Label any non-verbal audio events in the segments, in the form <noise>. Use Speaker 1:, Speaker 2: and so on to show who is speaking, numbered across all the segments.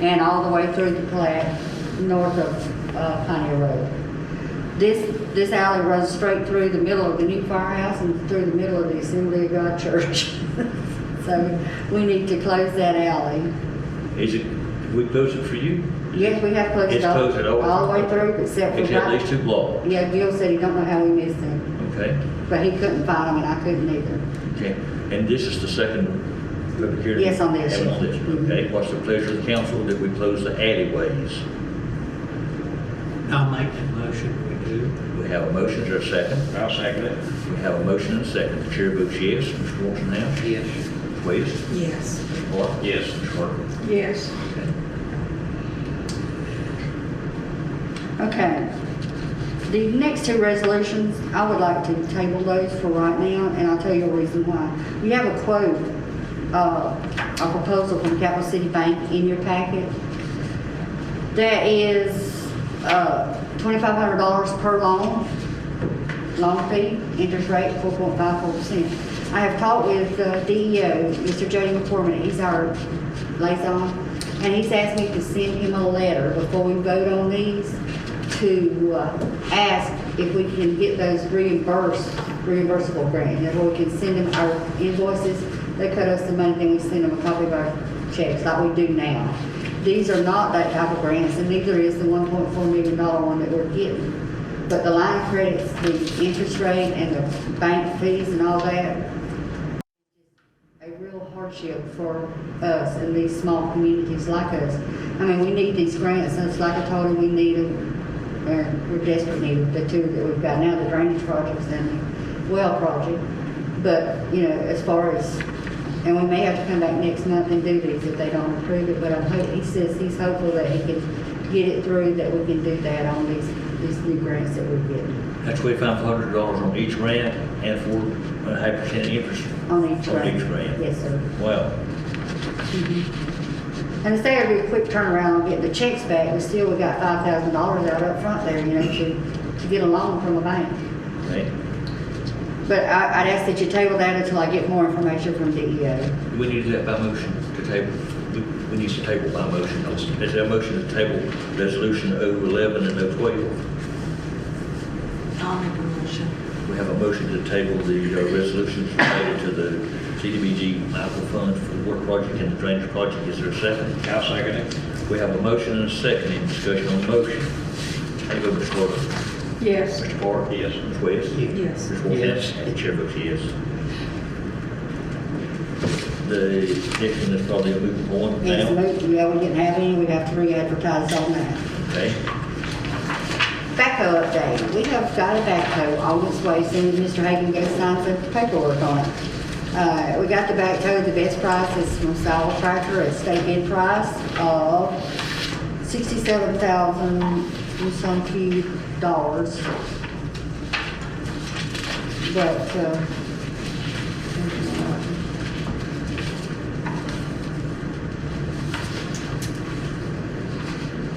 Speaker 1: and all the way through the plat, north of uh, Pioneer Road. This, this alley runs straight through the middle of the new firehouse and through the middle of the Assembly of God Church. <laughs> So we need to close that alley.
Speaker 2: Is it, we close it for you?
Speaker 1: Yes, we have closed
Speaker 2: It's
Speaker 1: it all.
Speaker 2: closed it all.
Speaker 1: All the way through except for.
Speaker 2: Except
Speaker 1: right-
Speaker 2: these two blocks,
Speaker 1: Yeah, Gil said he don't know how we missed him,
Speaker 2: okay?
Speaker 1: but he couldn't find him and I couldn't either.
Speaker 2: Okay, and this is the second public hearing?
Speaker 1: Yes, on this.
Speaker 2: And on this,
Speaker 1: Mhm.
Speaker 2: okay. What's the pleasure of the council that we close the alleyways?
Speaker 3: I'll make that motion, we do.
Speaker 2: We have a motion, is there a second?
Speaker 4: I'll second it.
Speaker 2: We have a motion and a second. The chair votes yes. Mr. Morrison now?
Speaker 3: Yes.
Speaker 2: Please.
Speaker 5: Yes.
Speaker 2: Mr. Moore?
Speaker 4: Yes.
Speaker 2: Mr. Harper?
Speaker 5: Yes.
Speaker 2: Okay.
Speaker 1: Okay. The next two resolutions, I would like to table those for right now and I'll tell you a reason why. You have a quote, uh, a proposal from Capital City Bank in your packet. That is, uh, twenty-five hundred dollars per loan, loan fee, interest rate four point five four percent. I have talked with uh, DEO, Mr. Jody McCormick, he's our liaison, and he's asked me to send him a letter before we vote on these to uh, ask if we can get those reimbursed, reimbursable grant, that we can send them our invoices, they cut us the money, then we send them a copy of our checks like we do now. These are not that type of grants, and neither is the one point four million dollar one that we're getting. But the line of credits, the interest rate and the bank fees and all that, a real hardship for us in these small communities like us. I mean, we need these grants, and it's like I told you, we need them, and we're desperate need of the two that we've got now, the drainage projects and the well project. But, you know, as far as, and we may have to come back next month and do these if they don't approve it, but I'm hope he says he's hopeful that he can get it through, that we can do that on these, these new grants that we're getting
Speaker 2: That's twenty-five hundred dollars on each grant and four and a half percent interest.
Speaker 1: on each
Speaker 2: On
Speaker 1: grant.
Speaker 2: each grant.
Speaker 1: Yes, sir.
Speaker 2: Wow.
Speaker 1: And instead of a quick turnaround and get the checks back, we still, we got five thousand dollars out up front there, you know, to, to get a loan from a bank.
Speaker 2: Okay.
Speaker 1: But I, I'd ask that you table that until I get more information from E DEO.
Speaker 2: Do we need to do that by motion to table? We- We need to table by motion. Is there a motion to table resolution 011 and 012?
Speaker 5: I'll make a motion.
Speaker 2: We have a motion to table the uh, resolutions related to the CDBG Michael Fund for the water project and the drainage project. Is there a second?
Speaker 4: I'll second it.
Speaker 2: We have a motion and a second. Any discussion on the motion? How do you vote, Ms. Carter?
Speaker 5: Yes.
Speaker 2: Mr. Parker? Yes. Ms. West?
Speaker 5: Yes.
Speaker 2: Ms. Wolf?
Speaker 4: Yes.
Speaker 2: And the chair votes yes. The next one is probably a moot point now.
Speaker 1: Yes, move, yeah, we didn't have any, we'd have to re-advertise on that.
Speaker 2: Okay.
Speaker 1: Backhoe update, we have got a backhoe on its way, soon as Mr. Hagan goes sign some paperwork on it. Uh, we got the backhoe, the best price is from Sowell Tractor, a state bid price of sixty-seven thousand and some few dollars. But, uh,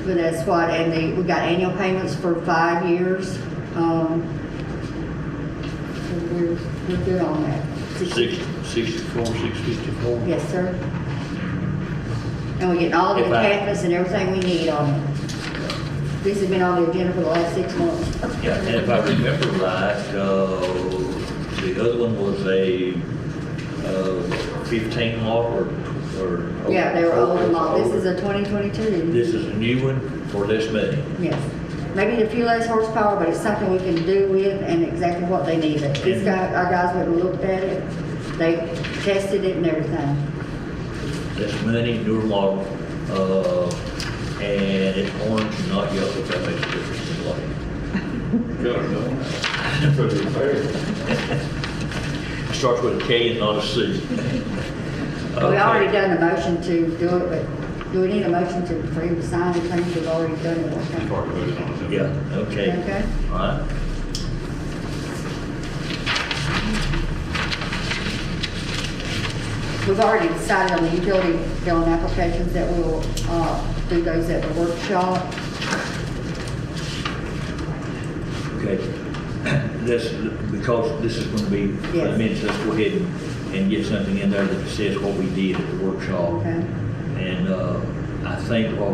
Speaker 1: but that's what, and they, we got annual payments for five years, um, so we're, we're good on that.
Speaker 2: Six, sixty-four, six fifty-four?
Speaker 1: Yes, sir. And we're getting all the
Speaker 2: If I-
Speaker 1: attachments and everything we need on it. This has been on the agenda for the last six months.
Speaker 2: Yeah, and if I remember right, uh, the other one was a, uh, fifteen lot or, or.
Speaker 1: Yeah, they were old and all. This is a 2022.
Speaker 2: This is a new one for less money.
Speaker 1: Yes. Maybe a few less horsepower, but it's something we can do with and exactly what they need.
Speaker 4: Mm-hmm.
Speaker 1: This guy, our guys went and looked at it. They tested it and everything.
Speaker 2: Less money, newer model, uh, and it's orange, not yellow, if that makes a difference in light.
Speaker 4: Good, no. For the repair.
Speaker 2: <laughs> It Starts with a K and not a C.
Speaker 1: We already done a motion to do it, but do we need a motion to, for him to sign the things we've already done it? one time?
Speaker 4: You've already voted on it. haven't you?
Speaker 2: Yeah, okay.
Speaker 1: Okay.
Speaker 2: All right.
Speaker 1: We've already decided on the utility billing applications that we'll, uh, do those at the workshop.
Speaker 2: Okay, <coughs> this, because this is going to be, I mean, let's go ahead and- and get something in there that says what we did at the workshop.
Speaker 1: Okay.
Speaker 2: And uh, I I think what